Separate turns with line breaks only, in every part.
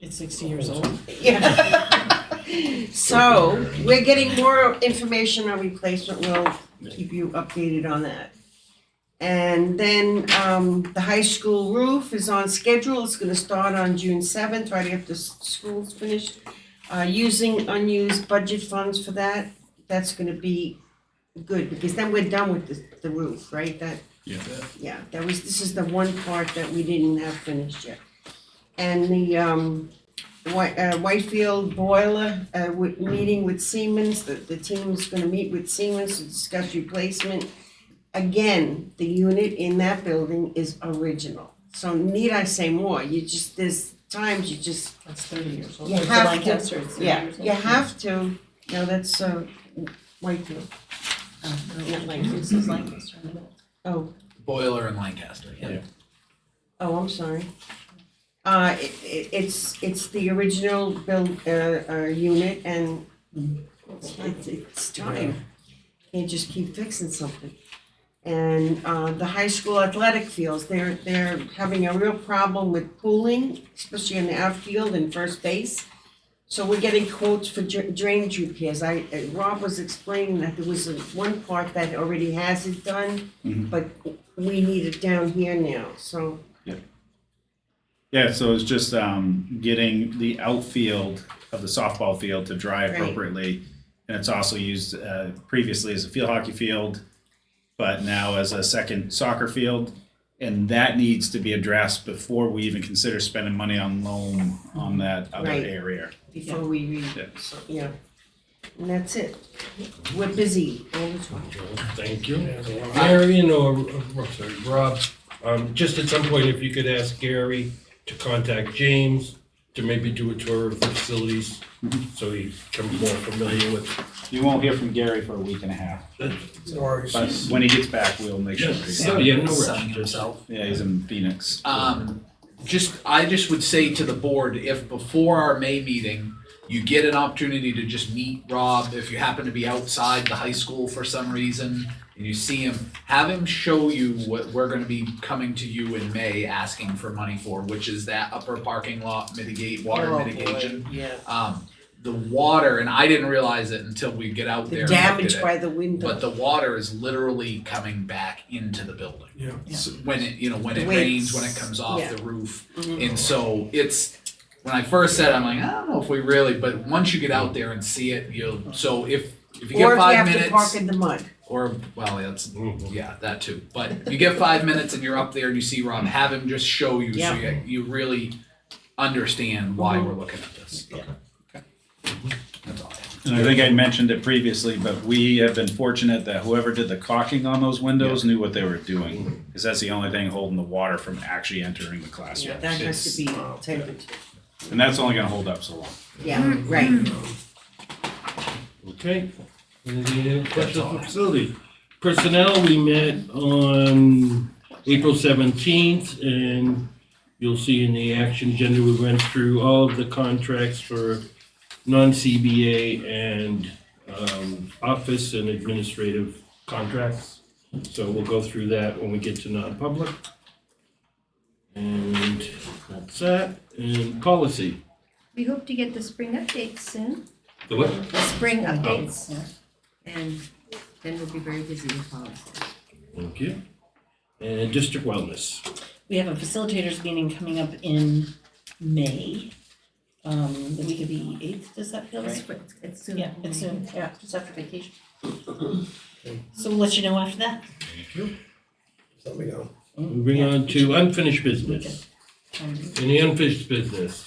It's sixty years old.
Yeah. So, we're getting more information on replacement, we'll keep you updated on that. And then, um, the high school roof is on schedule, it's gonna start on June seventh, right after s- school's finished. Uh, using unused budget funds for that, that's gonna be good, because then we're done with the, the roof, right? That,
Yeah.
yeah, that was, this is the one part that we didn't have finished yet. And the, um, White, uh, Whitefield boiler, uh, with, meeting with Siemens, the, the team's gonna meet with Siemens to discuss replacement. Again, the unit in that building is original, so need I say more, you just, there's times you just
That's thirty years old.
You
It's
have
like
to-
Lancaster, it's 30
yeah,
years old.
you have to, no, that's, uh, Whitefield,
Oh, no, not Lancaster, this is Lancaster in the middle.
oh,
Boiler in Lancaster, yeah.
oh, I'm sorry. Uh, it, it, it's, it's the original build, uh, uh, unit and it's, it's time. Can't just keep fixing something. And, uh, the high school athletic fields, they're, they're having a real problem with pooling, especially in the outfield and first base. So we're getting quotes for dra- drainage repairs. I, uh, Rob was explaining that there was a- one part that already has it done,
Mhm.
but we need it down here now, so,
Yeah, so it's just um, getting the outfield of the softball field to dry
Right.
appropriately. And it's also used uh, previously as a field hockey field, but now as a second soccer field. And that needs to be addressed before we even consider spending money on loan on that other
Mm-hmm. Right.
area.
before we
Yeah.
read, so, yeah. And that's it. We're busy all the time.
Thank you. Gary and or, or- sorry, Rob, um, just at some point, if you could ask Gary to contact James to maybe do a tour of the facilities so he becomes more familiar with.
You won't hear from Gary for a week and a half,
Sorry.
but when he gets back, we'll make sure. that he-
So,
Yeah, no rush.
Sunning himself.
Yeah, he's in Phoenix.
Um, just, I just would say to the board, if before our May meeting, you get an opportunity to just meet Rob, if you happen to be outside the high school for some reason, and you see him, have him show you what we're gonna be coming to you in May asking for money for, which is that upper parking lot mitigate, water
Oh, boy,
mitigation.
Yeah.
Um, the water, and I didn't realize it until we get out there and
The
looked at
damage
it.
by the window.
But the water is literally coming back into the building.
Yeah.
Yeah.
So When it, you know, when it
Waves.
rains, when it comes off
Yeah.
the roof.
Mhm.
And so it's, when I first said, it, I'm like, I don't know if we really, but once you get out there and see it, you'll, so if, if you get
Or if you
five
have to park
minutes,
in the mud.
or, well, that's,
Mm-hmm.
yeah, that too. But you get five minutes and you're up there and you see Rob, have him just show you, so you, you really understand why we're looking at this.
Yeah.
That's all.
And I think I mentioned it previously, but we have been fortunate that whoever did the caulking on those windows knew what they were doing. Because that's the only thing holding the water from actually entering the classroom.
That has to be
It's-
taken,
And that's only gonna hold up so long.
yeah, right.
Okay. Any other questions for facility? Personnel, we met on April seventeenth, and you'll see in the action agenda, we went through all of the contracts for non-CBA and, um, office and administrative contracts. So we'll go through that when we get to non-public. And that's that, and policy.
We hope to get the spring updates soon,
The what?
the spring updates.
yeah.
And then we'll be very busy with policy.
Thank you. And district wellness.
We have a facilitators meeting coming up in May, um, the week of the eighth, does that feel right?
It's- It's soon.
Yeah, it's soon, yeah, just after vacation. So we'll let you know after that.
Let me go.
Moving
Yeah.
on to unfinished business.
Um,
Any unfinished business?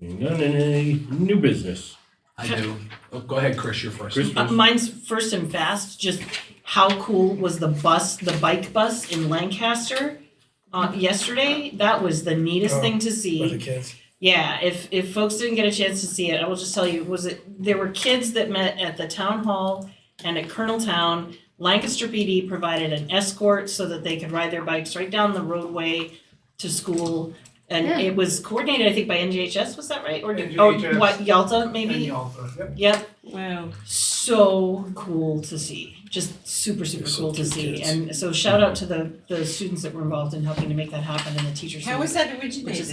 None in any new business.
I do. Oh, go ahead, Chris, you're first.
Chris?
Uh, mine's first and fast, just how cool was the bus, the bike bus in Lancaster uh, yesterday? That was the neatest thing to see.
With the kids.
Yeah, if if folks didn't get a chance to see it, I will just tell you, was it there were kids that met at the town hall and at Colonel Town. Lancaster PD provided an escort so that they could ride their bikes right down the roadway to school. And
Yeah.
it was coordinated, I think, by NGHS, was that right? Or did, oh,
NGHS.
what, Yalta maybe? Yep.
Wow.
So cool to see. Just super, super
They're so
cool to
cute
see.
kids.
And so shout out to the the students that were involved in helping to make that happen and the teachers. who-
How was that
Which
originated?
is